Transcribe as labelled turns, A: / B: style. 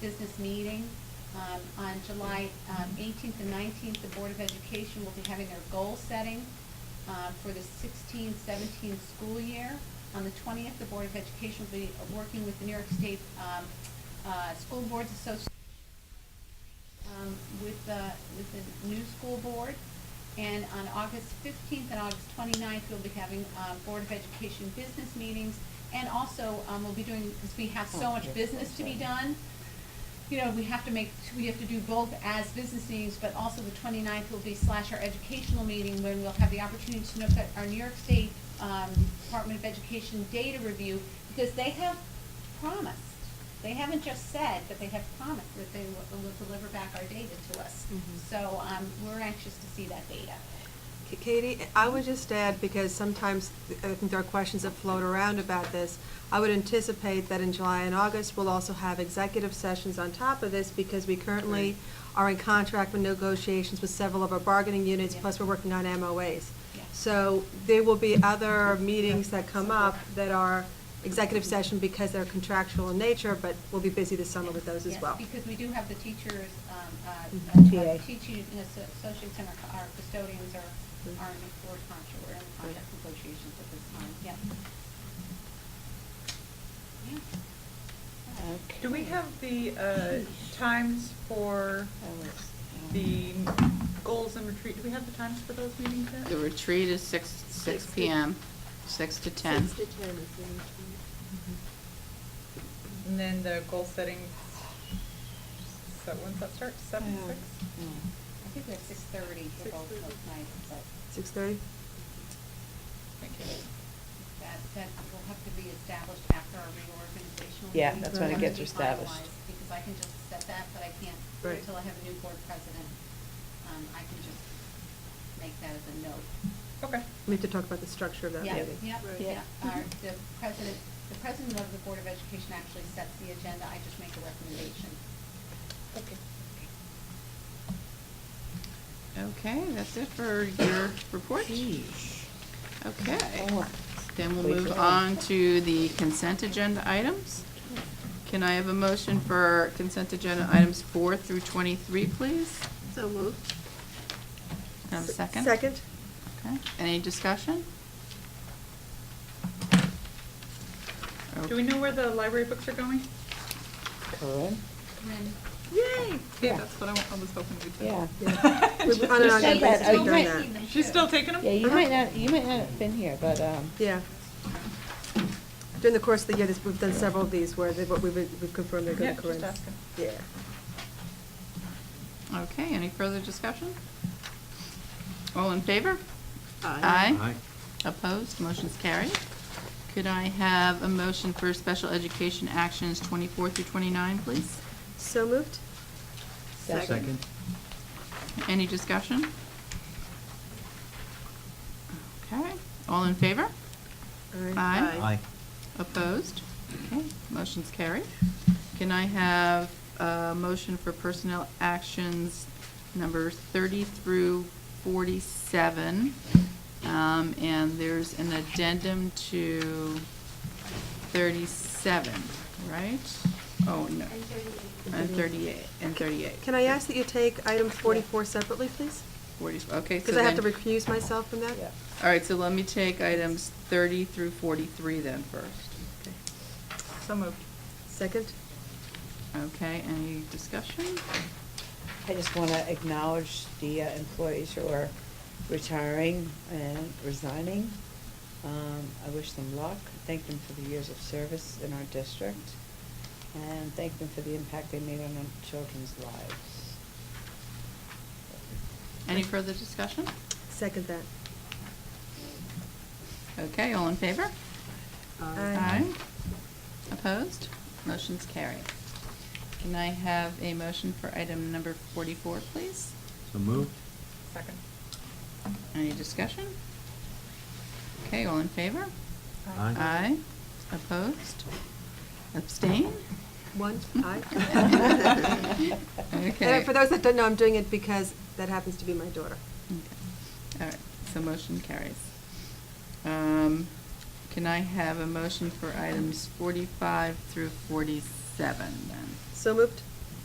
A: business meeting. Um, On July um, 18th and 19th, the Board of Education will be having their goal setting uh, for the 16-17 school year. On the 20th, the Board of Education will be working with the New York State um, uh, School Boards Association um, with the, with the new school board. And on August fifteenth and August 29th, we'll be having, uh, Board of Education business meetings. And also, um, we'll be doing, because we have so much business to be done, you know, we have to make, we have to do both as business meetings, but also the 29th will be slash our educational meeting when we'll have the opportunity to look at our New York State, um, Department of Education data review, because they have promised. They haven't just said, but they have promised that they will, will deliver back our data to us.
B: Mhm.
A: So, um, we're anxious to see that data.
B: K- Katie, I would just add, because sometimes I think there are questions that float around about this, I would anticipate that in July and August, we'll also have executive sessions on top of this, because we currently are in contract with negotiations with several of our bargaining units,
A: Yeah.
B: plus we're working on MOAs.
A: Yeah.
B: So there will be other meetings that come up that are executive session because they're contractual in nature, but we'll be busy this summer with those as
A: Yes,
B: well.
A: because we do have the teachers, um, uh,
B: Mhm.
A: uh,
B: TA.
A: teaching and asso- associates and our our custodians are,
B: Mm-hmm.
A: are in the board contract, we're in contract negotiations at this time,
B: Mm-hmm.
A: yeah. Yeah.
C: Do we have the uh, times for the goals and retreat? Do we have the times for those meetings yet?
D: The retreat is six, six
E: Six to-
D: PM, six to ten.
E: Six to ten is the retreat.
C: And then the goal setting, so when's that start? Seven,
A: I
C: six?
A: think we have six thirty for both of those nights, but
B: Six-thirty?
C: Thank you.
A: that, that will have to be established after our reorganizational.
F: Yeah,
A: meeting.
B: that's when it
A: Have to
B: gets
A: be
F: established.
A: finalized, Because I can just set that, but I can't,
B: Right.
A: until I have a new board president, um, I can just make that as a note.
C: Okay.
B: We have to talk about the structure of that
A: Yeah,
B: meeting.
A: yeah,
E: Right.
A: yeah.
F: Yeah.
A: Our, the president, the president of the Board of Education actually sets the agenda, I just make a recommendation.
C: Okay.
D: Okay, that's it for your report. Okay, then we'll move on to the consent agenda items. Can I have a motion for consent agenda items four through twenty-three, please?
E: So moved.
D: Can I Have a Um, second?
B: Second?
D: Okay, any discussion?
C: Do we know where the library books are going?
A: And then
C: Yay! Yeah,
F: Yeah.
C: that's what I wa- I was hoping we'd do.
F: Yeah.
B: We went on
F: You
B: and on
F: said
B: about
F: that, oh,
B: it during
F: right.
B: that.
C: She's still taking them?
F: Yeah, you might not, you might not have been here, but, um,
B: Yeah. During the course of the year, this, we've done several of these where they, what we've, we've confirmed they're
C: Yeah,
B: going to
C: just
B: Corinth.
C: asking.
B: Yeah.
D: Okay, any further discussion? All in favor? Aye. Opposed, motion's carried. Could I have a motion for special education actions 24 through 29, please?
B: So moved?
E: Second.
D: Any discussion? Okay, all in favor? Aye.
E: Aye.
D: Opposed? Okay, motion's carried. Can I have a motion for personnel actions numbers 30 through 47? Um, And there's an addendum to 37, right? Oh, no. And 38, and 38.
B: Can I ask that you take item forty-four separately, please?
D: 40, okay. so
B: Because I have to
D: then-
B: recuse myself from that?
F: yeah.
D: All right, so let me take items 30 through 43 then first.
B: Okay.
C: So moved.
B: Second?
D: Okay, any discussion?
F: I just want to acknowledge the uh, employees who are retiring and resigning. Um, I wish them luck, thank them for the years of service in our district, and thank them for the impact they made on our children's lives.
D: Any further discussion?
B: Second that.
D: Okay, all in favor?
B: Aye.
D: Opposed? Motion's carried. Can I have a motion for item number 44, please?
G: So moved.
C: Second.
D: Any discussion? Okay, all in favor?
G: Aye.
D: Aye. Opposed? Abstain?
B: One, aye.
D: Okay.
B: And for those that don't know, I'm doing it because that happens to be my daughter.
D: Okay. All right, so motion carries. Um, Can I have a motion for items 45 through 47 then?
B: So moved?